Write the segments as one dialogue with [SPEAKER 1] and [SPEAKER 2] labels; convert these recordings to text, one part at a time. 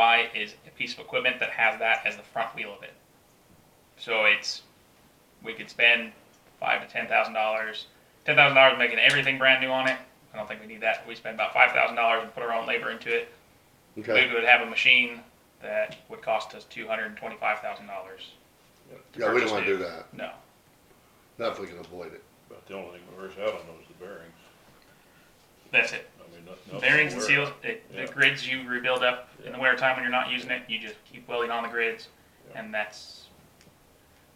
[SPEAKER 1] buy is a piece of equipment that has that as the front wheel of it. So it's we could spend five to ten thousand dollars. Ten thousand dollars making everything brand new on it. I don't think we need that. We spend about five thousand dollars and put our own labor into it.
[SPEAKER 2] Okay,
[SPEAKER 1] We would have a machine that would cost us two hundred and twenty five thousand dollars.
[SPEAKER 2] yeah, we don't wanna do that,
[SPEAKER 1] No.
[SPEAKER 2] not if we can avoid it.
[SPEAKER 3] About the only thing we wears out on those is the bearings.
[SPEAKER 1] That's it.
[SPEAKER 3] I mean, nothing else.
[SPEAKER 1] Bearings and
[SPEAKER 3] will
[SPEAKER 1] seals,
[SPEAKER 3] wear.
[SPEAKER 1] it,
[SPEAKER 3] Yeah.
[SPEAKER 1] the grids you rebuild up in the wintertime when you're not using it, you just keep welding on the grids,
[SPEAKER 3] Yeah.
[SPEAKER 1] and that's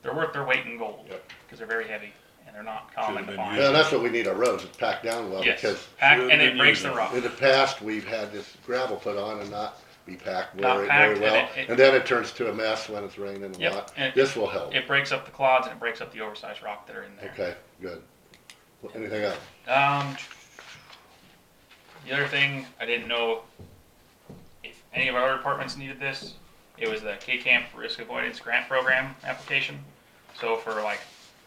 [SPEAKER 1] they're worth their weight in gold because
[SPEAKER 3] Yep.
[SPEAKER 1] they're very heavy and they're not
[SPEAKER 3] Should've
[SPEAKER 1] common to
[SPEAKER 3] been
[SPEAKER 1] find.
[SPEAKER 3] used. uh,
[SPEAKER 2] Yeah, that's what we need our roads, is packed down well,
[SPEAKER 1] Yes,
[SPEAKER 2] because
[SPEAKER 1] pack
[SPEAKER 3] Should've
[SPEAKER 1] and it
[SPEAKER 3] been
[SPEAKER 1] breaks
[SPEAKER 3] used.
[SPEAKER 1] the rock.
[SPEAKER 2] in the past, we've had this gravel put on and not be packed
[SPEAKER 1] Not
[SPEAKER 2] very,
[SPEAKER 1] packed, and
[SPEAKER 2] very well.
[SPEAKER 1] it- it-
[SPEAKER 2] And then it turns to a mess when it's raining a
[SPEAKER 1] Yep,
[SPEAKER 2] lot.
[SPEAKER 1] and-
[SPEAKER 2] This will help.
[SPEAKER 1] It breaks up the clods and it breaks up the oversized rock that are in there.
[SPEAKER 2] Okay, good. Well, Anything else?
[SPEAKER 1] Um, the other thing I didn't know if any of our other departments needed this. It was the K Camp Risk Avoidance Grant Program application. So for like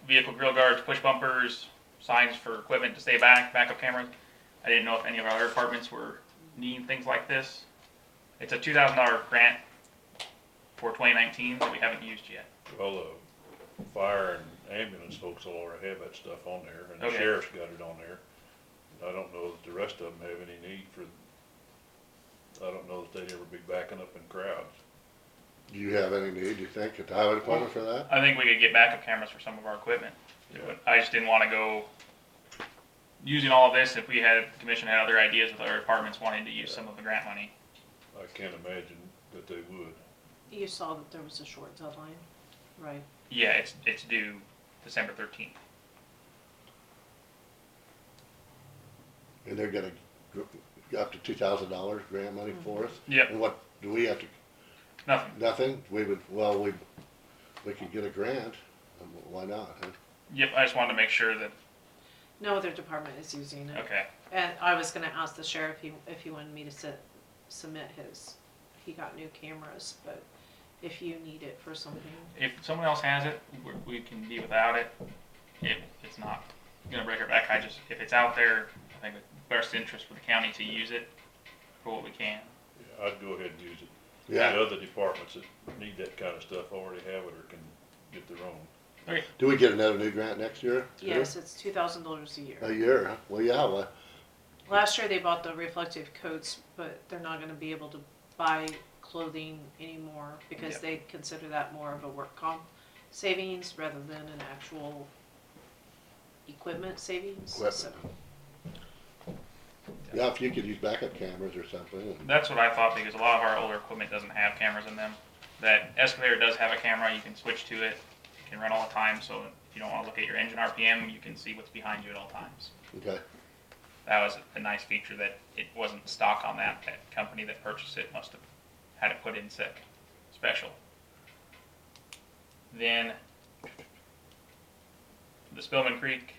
[SPEAKER 1] vehicle grill guards, push bumpers, signs for equipment to stay back, backup cameras. I didn't know if any of our other departments were needing things like this. It's a two thousand dollar grant for twenty nineteen that we haven't used yet.
[SPEAKER 3] Well, the fire and ambulance folks will already have that stuff on there, and the
[SPEAKER 1] Okay.
[SPEAKER 3] sheriff's got it on there. I don't know that the rest of them have any need for, I don't know that they'd ever be backing up in crowds.
[SPEAKER 2] Do you have any need, you think, at the highway department for that?
[SPEAKER 1] I think we could get backup cameras for some of our equipment.
[SPEAKER 3] Yeah.
[SPEAKER 1] I just didn't want to go using all of this if we had, commission had other ideas with other departments wanting to use some of the grant money.
[SPEAKER 3] I can't imagine that they would.
[SPEAKER 4] You saw that there was a short deadline, right?
[SPEAKER 1] Yeah, it's, it's due December thirteenth.
[SPEAKER 2] And they're gonna, gr- up to two thousand dollars grant money for us?
[SPEAKER 1] Yep.
[SPEAKER 2] And what, do we have to,
[SPEAKER 1] Nothing.
[SPEAKER 2] nothing? We would, well, we, we could get a grant. Um, Why not, huh?
[SPEAKER 1] Yep, I just wanted to make sure that,
[SPEAKER 4] No other department is using it.
[SPEAKER 1] okay,
[SPEAKER 4] And I was gonna ask the sheriff he- if he wanted me to sit, submit his, he got new cameras, but if you need it for something.
[SPEAKER 1] if someone else has it, we- we can be without it. It, it's not gonna break our back. I just, if it's out there, I think it's best interest for the county to use it for what we can.
[SPEAKER 3] Yeah, I'd go ahead and use it. The
[SPEAKER 2] Yeah,
[SPEAKER 3] other departments that need that kind of stuff already have it or can get their own.
[SPEAKER 2] do we get another new grant next year? too?
[SPEAKER 4] Yes, it's two thousand dollars a
[SPEAKER 2] A
[SPEAKER 4] year.
[SPEAKER 2] year, huh? well, yeah, well,
[SPEAKER 4] Last year they bought the reflective coats, but they're not gonna be able to buy clothing anymore because
[SPEAKER 1] Yeah.
[SPEAKER 4] they consider that more of a work comp savings rather than an actual equipment savings, so.
[SPEAKER 2] Equipment. yeah, if you could use backup cameras or something, and-
[SPEAKER 1] That's what I thought because a lot of our older equipment doesn't have cameras in them. That excavator does have a camera. You can switch to it. It can run all the time. So if you don't want to look at your engine RPM, you can see what's behind you at all times.
[SPEAKER 2] okay,
[SPEAKER 1] That was a nice feature that it wasn't stock on that. That company that purchased it must have had it put in sec special. Then the Spillman Creek.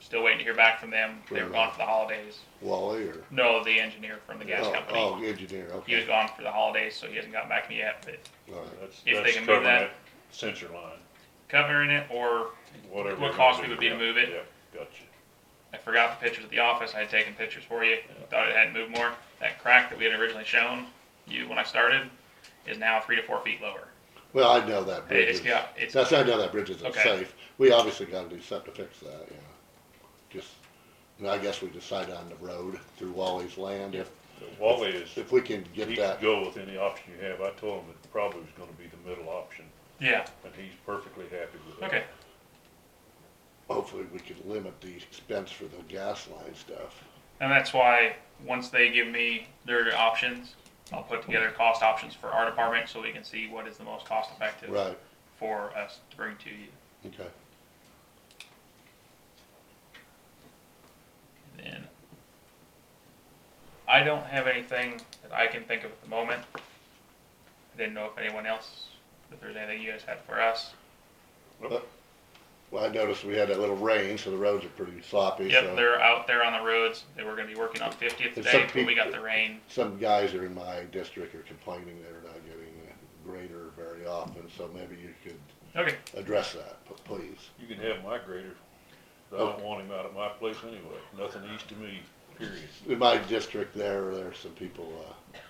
[SPEAKER 1] Still waiting to hear back from them. They were gone for the holidays.
[SPEAKER 2] Wally or?
[SPEAKER 1] No, the engineer from the gas
[SPEAKER 2] Oh,
[SPEAKER 1] company.
[SPEAKER 2] Oh, engineer,
[SPEAKER 1] He was
[SPEAKER 2] okay,
[SPEAKER 1] gone for the holidays, so he hasn't gotten back to me yet. But
[SPEAKER 2] all right,
[SPEAKER 3] That's,
[SPEAKER 1] If they
[SPEAKER 3] that's
[SPEAKER 1] can move
[SPEAKER 3] covering
[SPEAKER 1] that.
[SPEAKER 3] that sensor line,
[SPEAKER 1] covering it, or
[SPEAKER 3] whatever.
[SPEAKER 1] What
[SPEAKER 3] they're
[SPEAKER 1] cost
[SPEAKER 3] gonna
[SPEAKER 1] it would be
[SPEAKER 3] do.
[SPEAKER 1] to move it.
[SPEAKER 3] Yeah, gotcha.
[SPEAKER 1] I forgot the pictures at the office. I had taken pictures for you. Thought it hadn't moved more. That crack that we had originally shown you when I started is now three to four feet lower.
[SPEAKER 2] well, I know that bridge
[SPEAKER 1] It's
[SPEAKER 2] is,
[SPEAKER 1] got it's
[SPEAKER 2] that's, I know that bridge isn't
[SPEAKER 1] Okay.
[SPEAKER 2] safe, we obviously gotta do something to fix that, you know, just, and I guess we decide on the road through Wally's land, if,
[SPEAKER 3] But Wally is,
[SPEAKER 2] if we can get
[SPEAKER 3] he could
[SPEAKER 2] that,
[SPEAKER 3] go with any option you have. I told him it probably was gonna be the middle option,
[SPEAKER 1] yeah
[SPEAKER 3] and he's perfectly happy with that.
[SPEAKER 1] okay.
[SPEAKER 2] hopefully we can limit the expense for the gas line stuff.
[SPEAKER 1] And that's why once they give me their options, I'll put together cost options for our department so we can see what is the most cost effective
[SPEAKER 2] Right,
[SPEAKER 1] for us to bring to you.
[SPEAKER 2] okay,
[SPEAKER 1] Then I don't have anything that I can think of at the moment. I didn't know if anyone else, if there's anything you guys had for us.
[SPEAKER 2] well, I noticed we had that little rain, so the roads are pretty sloppy,
[SPEAKER 1] Yep,
[SPEAKER 2] so,
[SPEAKER 1] they're out there on the roads. They were going to be working on 50th
[SPEAKER 2] some
[SPEAKER 1] today, but we
[SPEAKER 2] people-
[SPEAKER 1] got the rain.
[SPEAKER 2] some guys that are in my district are complaining they're not getting a grader very often, so maybe you could
[SPEAKER 1] Okay,
[SPEAKER 2] address that, p- please.
[SPEAKER 3] You can have my grader. I don't want him out at my place anyway. Nothing east of me, period.
[SPEAKER 2] In my district there, there are some people, uh,